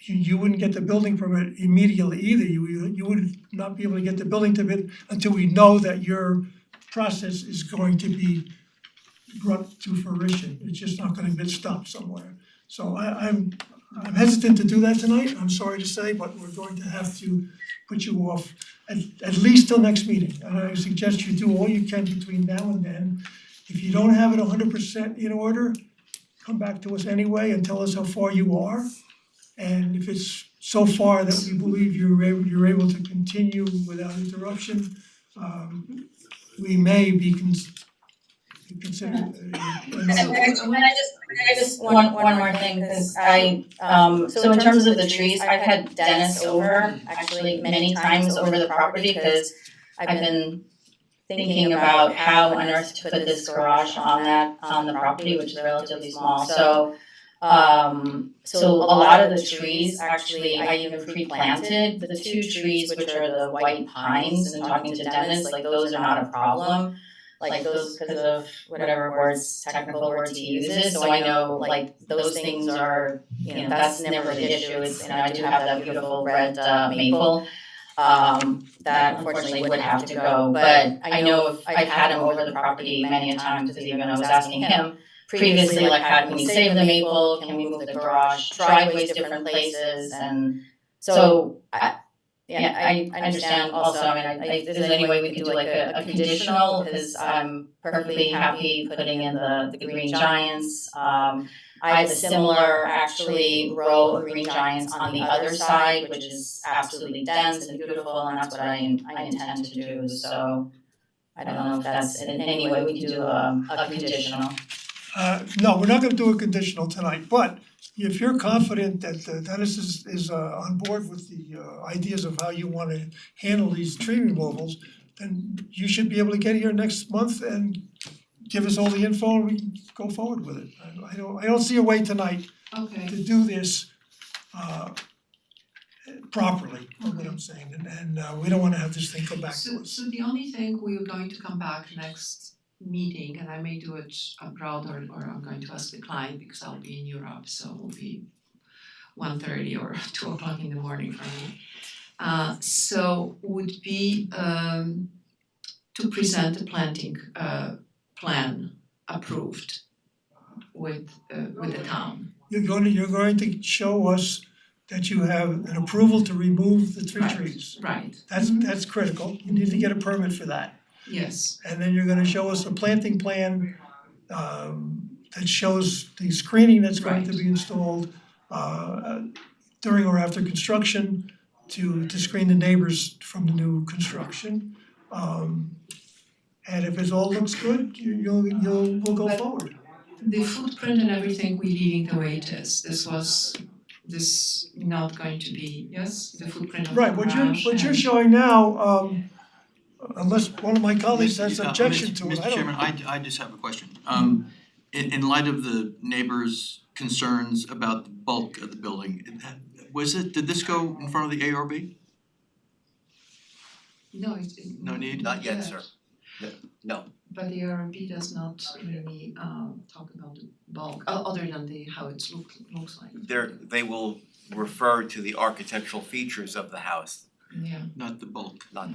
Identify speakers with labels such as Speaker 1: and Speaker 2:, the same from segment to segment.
Speaker 1: you you wouldn't get the building permit immediately either, you you you would not be able to get the building permit until we know that your process is going to be brought to fruition, it's just not gonna get stopped somewhere. So I I'm I'm hesitant to do that tonight, I'm sorry to say, but we're going to have to put you off at at least till next meeting, and I suggest you do all you can between now and then. If you don't have it hundred percent in order, come back to us anyway and tell us how far you are. And if it's so far that we believe you're able, you're able to continue without interruption, um we may be cons- considered
Speaker 2: So
Speaker 1: uh,
Speaker 2: when I just, when I just, one, one more thing, cause I, um, so in terms of the trees, I've had Dennis over actually many times over the property, cause I've been thinking about how on earth to put this garage on that, on the property, which is relatively small, so, um, so a lot of the trees, actually, I even pre-planted, the two trees, which are the white pines, and talking to Dennis, like, those are not a problem like those because of whatever words, technical words he uses, so I know like those things are, you know, that's never the issue, it's, and I do have that beautiful red uh maple. Um, that unfortunately would have to go, but I know if, I've had him over the property many a time, because even I was asking him previously, like, how can we save the maple, can we move the garage, driveways different places, and
Speaker 3: So,
Speaker 2: so I, yeah, I I understand also, I mean, I I- if there's any way we could do like a a conditional, cause I'm perfectly happy putting in the the green giants. Um I have a similar actually row of green giants on the other side, which is absolutely dense and beautiful, and that's what I I intend to do, so. I don't know if that's in any way we could do a a conditional.
Speaker 1: Uh no, we're not gonna do a conditional tonight, but if you're confident that uh, Dennis is is uh on board with the uh ideas of how you wanna handle these tree removals, then you should be able to get here next month and give us all the info and we can go forward with it. I I don't I don't see a way tonight
Speaker 4: Okay,
Speaker 1: to do this uh properly, is what I'm saying, and and uh we don't wanna have this thing come back to
Speaker 4: so
Speaker 1: us.
Speaker 4: so the only thing we are going to come back next meeting, and I may do it abroad or or I'm going to ask the client because I'll be in Europe, so it'll be one thirty or two o'clock in the morning for me. Uh so would be um to present a planting uh plan approved with uh with the town.
Speaker 1: You're going to, you're going to show us that you have an approval to remove the three
Speaker 4: Right.
Speaker 1: trees.
Speaker 4: Right,
Speaker 1: That's that's critical, you need to get a permit for that.
Speaker 4: yes,
Speaker 1: And then you're gonna show us a planting plan um that shows the screening that's going to be installed uh during or after construction to to screen the neighbors from the new construction. Um and if it all looks good, you you'll you'll we'll go forward.
Speaker 4: the footprint and everything we're leaving the way it is, this was, this not going to be, yes, the footprint of the
Speaker 1: Right, what you're
Speaker 4: garage
Speaker 1: what you're
Speaker 4: and-
Speaker 1: showing now, um unless one of my colleagues
Speaker 5: Mr.
Speaker 1: has
Speaker 5: uh,
Speaker 1: objection
Speaker 5: Mr.
Speaker 1: to it, I
Speaker 5: Mr. Chairman,
Speaker 1: don't,
Speaker 5: I I just have a question. Um in in light of the neighbors' concerns about the bulk of the building, it- was it, did this go in front of the ARB?
Speaker 4: No, it it.
Speaker 5: No need?
Speaker 6: Not yet, sir.
Speaker 4: But the RMB does not really um talk about the bulk, o- other than the how it look looks like.
Speaker 6: They're, they will refer to the architectural features of the house,
Speaker 4: Yeah,
Speaker 5: Not the bulk.
Speaker 6: not,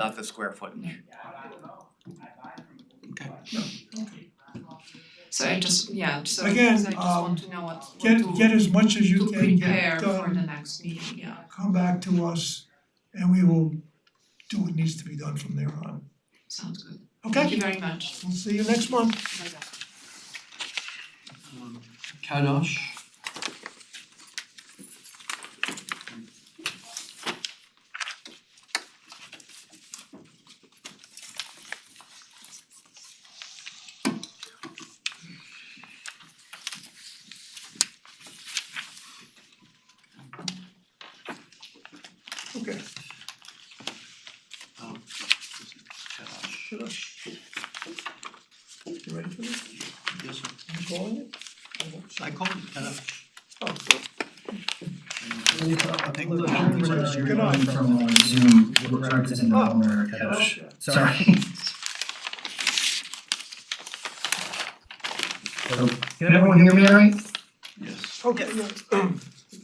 Speaker 6: not the square footage.
Speaker 4: so I just, yeah, so
Speaker 1: Again,
Speaker 4: so I just
Speaker 1: um,
Speaker 4: want to know what what
Speaker 1: get get
Speaker 4: to
Speaker 1: as much as you
Speaker 4: to
Speaker 1: can
Speaker 4: prepare
Speaker 1: get done.
Speaker 4: for the next meeting, yeah.
Speaker 1: come back to us and we will do what needs to be done from there on.
Speaker 4: Sounds good. Thank
Speaker 1: Okay,
Speaker 4: you very much.
Speaker 1: we'll see you next month.
Speaker 4: Bye-bye.
Speaker 5: Um Kadosh?
Speaker 1: Okay.
Speaker 5: Oh, this is Kadosh.
Speaker 1: You ready for this?
Speaker 5: Yes, sir.
Speaker 1: You calling it?
Speaker 5: I called it Kadosh.
Speaker 1: Oh,
Speaker 5: I think
Speaker 7: Look,
Speaker 5: the
Speaker 7: I'm
Speaker 5: neighbors
Speaker 7: gonna
Speaker 5: are-
Speaker 7: do your
Speaker 1: Good night.
Speaker 7: one from on Zoom, we're practicing the
Speaker 1: Oh,
Speaker 7: Homer Kadosh.
Speaker 1: okay.
Speaker 7: Sorry. So, Can everyone hear me all right?
Speaker 5: Yes.
Speaker 1: Okay, yeah.